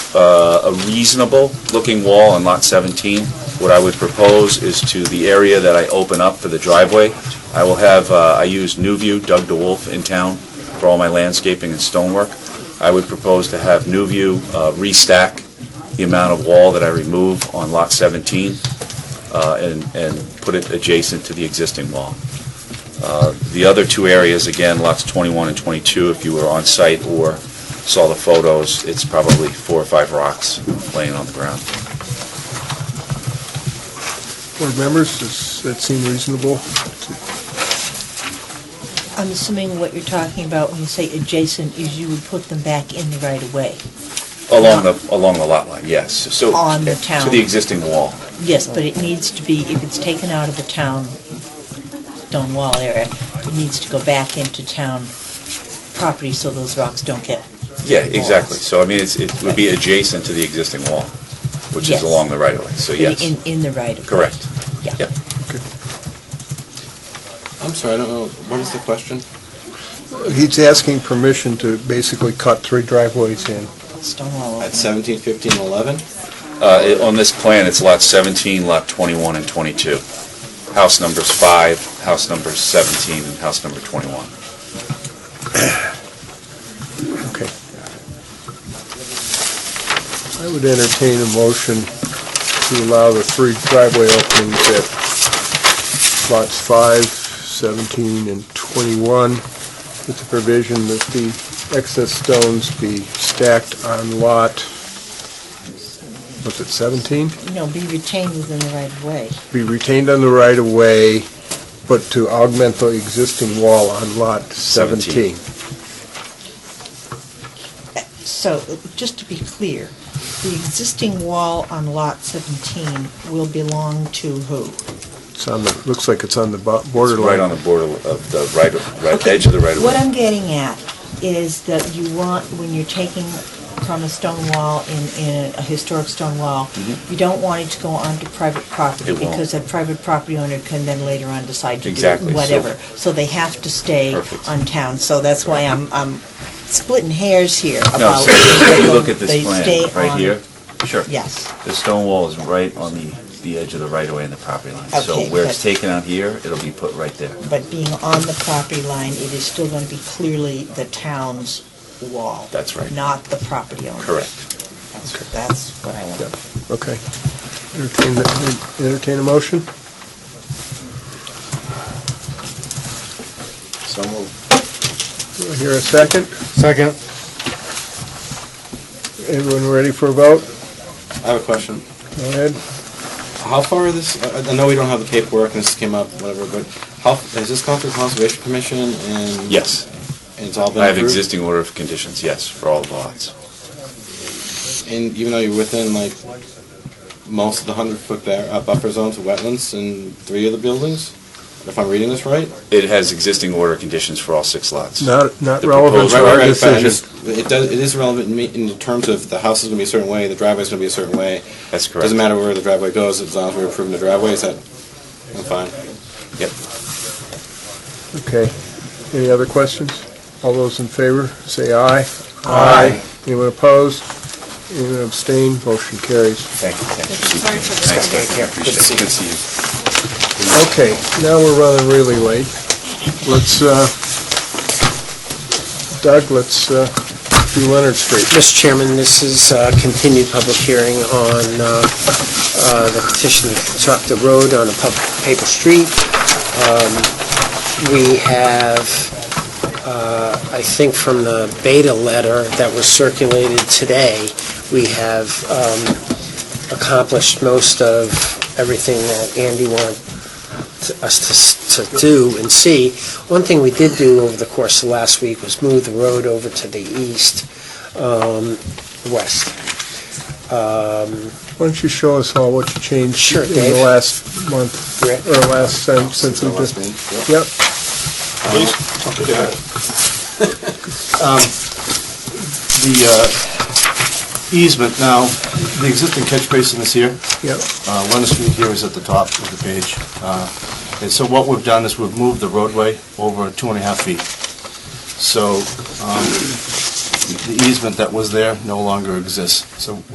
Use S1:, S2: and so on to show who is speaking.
S1: uh, a reasonable-looking wall on Lot 17. What I would propose is to the area that I open up for the driveway, I will have, uh, I use New View, Doug DeWolf in town for all my landscaping and stonework. I would propose to have New View uh, restack the amount of wall that I remove on Lot 17 uh, and and put it adjacent to the existing wall. Uh, The other two areas, again, lots 21 and 22, if you were on site or saw the photos, it's probably four or five rocks laying on the ground.
S2: Board members, does that seem reasonable?
S3: I'm assuming what you're talking about when you say adjacent is you would put them back in the right of way.
S1: Along the, along the lot line, yes. So
S3: On the
S1: To
S3: town.
S1: the existing wall.
S3: Yes, but it needs to be, if it's taken out of the town stone wall area, it needs to go back into town property so those rocks don't get,
S1: Yeah, exactly. So I mean, it's, it would be adjacent to the existing wall, which is
S3: Yes.
S1: along the right of way, so
S3: in,
S1: yes.
S3: in the right of way.
S1: Correct.
S3: Yeah.
S1: Yep.
S4: I'm sorry, I don't know, what is the question?
S2: He's asking permission to basically cut three driveways in.
S3: Stone wall.
S4: At 17, 15, 11?
S1: Uh, it- On this plan, it's lot 17, lot 21, and 22. House numbers 5, house number 17, and house number 21.
S2: Okay. I would entertain a motion to allow the three driveway openings at lots 5, 17, and 21, with the provision that the excess stones be stacked on lot, was it 17?
S3: No, be retained within the right of way.
S2: be retained on the right of way, but to augment the existing wall on lot
S1: Seventeen.
S2: 17.
S3: So, just to be clear, the existing wall on lot 17 will belong to who?
S2: It's on the, looks like it's on the bo-
S1: It's Right on
S2: borderline.
S1: the border of the right, of- right edge of the right of
S3: What
S1: way.
S3: I'm getting at is that you want, when you're taking from a stone wall in, in a historic stone wall, you don't want it to go onto private property
S1: Mm-hmm. It won't.
S3: because a private property owner can then later on decide to do
S1: Exactly, so-
S3: whatever. So they have to stay
S1: Perfect.
S3: on town, so that's why I'm, I'm splitting hairs here
S1: No,
S3: about
S1: so if you look at
S3: they
S1: this
S3: stay
S1: plan, right
S3: on-
S1: here, sure.
S3: Yes,
S1: The stone wall is right on the, the edge of the right of way and the property line. So
S3: Okay,
S1: where it's
S3: but-
S1: taken out here, it'll be put right there.
S3: but being on the property line, it is still going to be clearly the town's wall.
S1: That's right.
S3: Not the property owner.
S1: Correct.
S3: That's what I want.
S2: Okay. Entertain, the- entertain a motion?
S4: So moved.
S2: Do I hear a second?
S5: Second.
S2: Everyone ready for a vote?
S4: I have a question.
S2: Go ahead.
S4: How far is this, I- I know we don't have the paperwork and this came up, whatever, but how, has this gone through Conservation Commission and?
S1: Yes.
S4: And it's all been approved?
S1: I have existing order of conditions, yes, for all the lots.
S4: And even though you're within like most of the 100-foot bar- uh, buffer zones of wetlands in three of the buildings? If I'm reading this right?
S1: It has existing order of conditions for all six lots.
S2: Not, not
S1: The
S2: relevant
S1: proposed-
S2: to
S4: Right, right,
S2: our
S4: right, but I just-
S2: decision.
S4: It does, it is relevant in me- in terms of the house is gonna be a certain way, the driveway's gonna be a certain way.
S1: That's correct.
S4: Doesn't matter where the driveway goes, as long as we're approving the driveway, is that, I'm fine.
S1: Yep.
S2: Okay. Any other questions? All those in favor, say aye.
S4: Aye.
S2: Anyone opposed? Anyone abstain? Motion carries.
S1: Thank you. Thank you.
S6: Sorry for the
S1: Thanks,
S6: second.
S1: Doug. I appreciate it. Good to see you.
S2: Okay, now we're running really late. Let's, uh, Doug, let's uh, do Leonard Street.
S5: Mr. Chairman, this is uh, continued public hearing on uh, uh, the petition to construct the road on a public paper street. Um, We have, uh, I think from the beta letter that was circulated today, we have um, accomplished most of everything that Andy wanted us to s- to do and see. One thing we did do over the course of last week was move the road over to the east um, west. Um,
S2: Why don't you show us all what you changed
S5: Sure,
S2: in the
S5: Dave.
S2: last month,
S5: Rick?
S2: or last, um, since we
S4: The last
S2: did...
S4: meeting, yeah.
S2: Yep,
S7: the uh, easement now, the existing catch basin is here.
S2: yep,
S7: Uh, Leonard Street here is at the top of the page. Uh, And so what we've done is we've moved the roadway over two and a half feet. So um, the easement that was there no longer exists. So